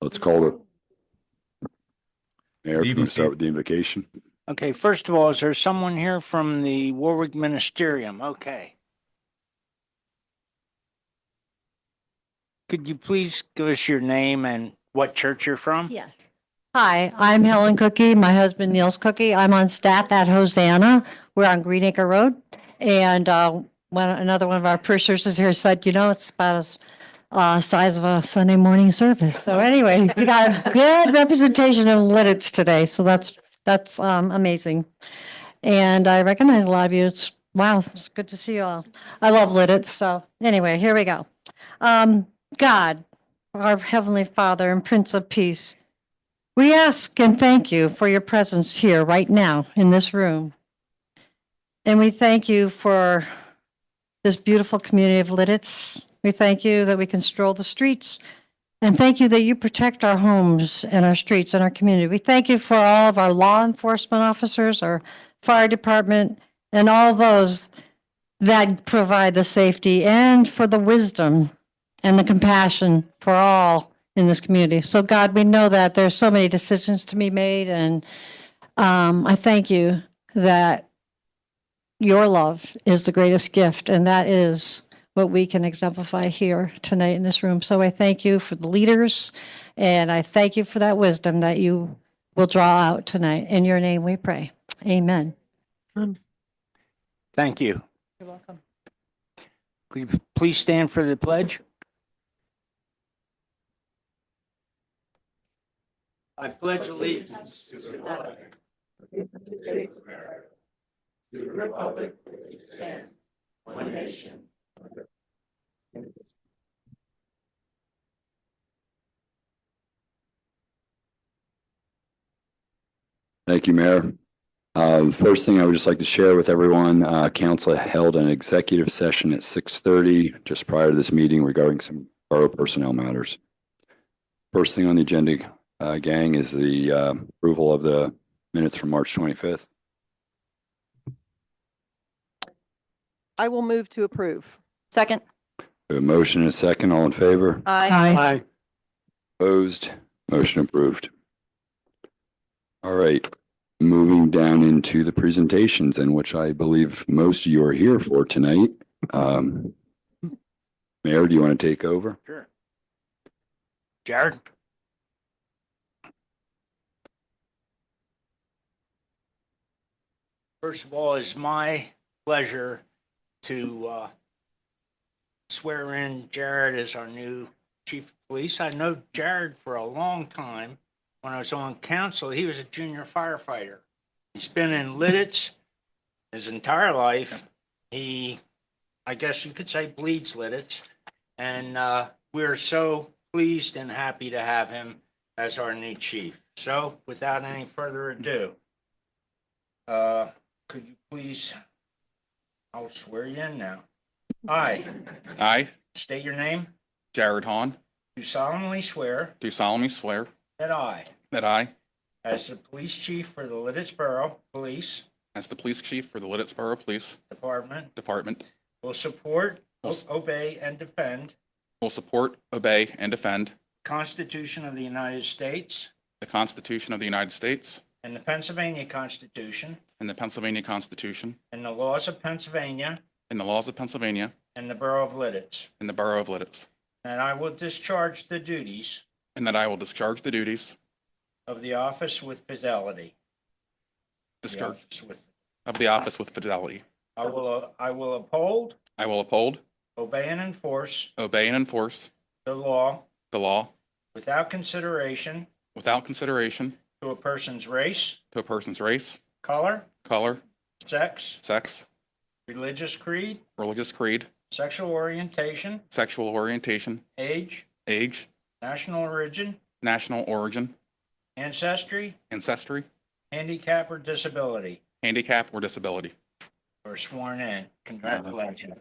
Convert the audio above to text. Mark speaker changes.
Speaker 1: let's call it. Mayor, if you
Speaker 2: Evening,
Speaker 1: want to start with the invocation?
Speaker 3: Okay, first of all, is there someone here from the Warwick Ministerium? Okay. Could you please give us your name and what church you're from?
Speaker 4: Yes. Hi, I'm Helen Cookie, my husband Neil's Cookie. I'm on staff at Hosanna. We're on Green Acre Road. And uh, one, another one of our preachers here said, you know, it's about as uh, size of a Sunday morning service. So anyway, we got a good representation of Lidditz today, so that's, that's um, amazing. And I recognize a lot of you. It's, wow, it's good to see you all. I love Lidditz, so anyway, here we go. Um, God, our Heavenly Father and Prince of Peace, we ask and thank you for your presence here right now in this room. And we thank you for this beautiful community of Lidditz. We thank you that we can stroll the streets. And thank you that you protect our homes and our streets and our community. We thank you for all of our law enforcement officers, our fire department, and all those that provide the safety and for the wisdom and the compassion for all in this community. So God, we know that there's so many decisions to be made and um, I thank you that your love is the greatest gift and that is what we can exemplify here tonight in this room. So I thank you for the leaders and I thank you for that wisdom that you will draw out tonight. In your name we pray. Amen.
Speaker 3: Thank you.
Speaker 4: You're welcome.
Speaker 3: Could you please stand for the pledge? I pledge allegiance to the flag
Speaker 1: Thank you, Mayor. Um, First thing I would just like to share with everyone, uh, council held an executive session at six thirty just prior to this meeting regarding some borough personnel matters. First thing on the agenda, uh, gang, is the uh, approval of the minutes from March twenty-fifth.
Speaker 5: I will move to approve.
Speaker 6: Second.
Speaker 1: A motion and a second, all in favor?
Speaker 6: Aye.
Speaker 1: Opposed, motion approved. All right, moving down into the presentations and which I believe most of you are here for tonight. Um, Mayor, do you want to take over?
Speaker 3: Sure. Jared? First of all, it's my pleasure to uh, swear in Jared as our new chief of police. I know Jared for a long time. When I was on council, he was a junior firefighter. He's been in Lidditz his entire life. He, I guess you could say bleeds Lidditz. And uh, we're so pleased and happy to have him as our new chief. So without any further ado, uh, could you please, I'll swear you in now. I
Speaker 2: I,
Speaker 3: state your name.
Speaker 2: Jared Hahn,
Speaker 3: Do solemnly swear
Speaker 2: do solemnly swear
Speaker 3: that I,
Speaker 2: that I,
Speaker 3: as the police chief for the Lidditz Borough Police
Speaker 2: as the police chief for the Liddittsboro Police
Speaker 3: Department,
Speaker 2: Department,
Speaker 3: will support,
Speaker 2: Will s-
Speaker 3: obey, and defend
Speaker 2: will support, obey, and defend
Speaker 3: the Constitution of the United States
Speaker 2: the Constitution of the United States
Speaker 3: and the Pennsylvania Constitution
Speaker 2: and the Pennsylvania Constitution
Speaker 3: and the laws of Pennsylvania
Speaker 2: and the laws of Pennsylvania
Speaker 3: and the Borough of Lidditz,
Speaker 2: and the Borough of Lidditz,
Speaker 3: and I will discharge the duties
Speaker 2: and that I will discharge the duties
Speaker 3: of the office with fidelity. The
Speaker 2: discharge
Speaker 3: office with-
Speaker 2: of the office with fidelity.
Speaker 3: I will, uh, I will uphold,
Speaker 2: I will uphold,
Speaker 3: obey, and enforce
Speaker 2: obey, and enforce
Speaker 3: the law
Speaker 2: the law
Speaker 3: without consideration
Speaker 2: without consideration
Speaker 3: to a person's race,
Speaker 2: to a person's race,
Speaker 3: color,
Speaker 2: color,
Speaker 3: sex,
Speaker 2: sex,
Speaker 3: religious creed,
Speaker 2: religious creed,
Speaker 3: sexual orientation,
Speaker 2: sexual orientation,
Speaker 3: age,
Speaker 2: age,
Speaker 3: national origin,
Speaker 2: national origin,
Speaker 3: ancestry,
Speaker 2: ancestry,
Speaker 3: handicap, or disability,
Speaker 2: handicap, or disability.
Speaker 3: or sworn in. Congratulations.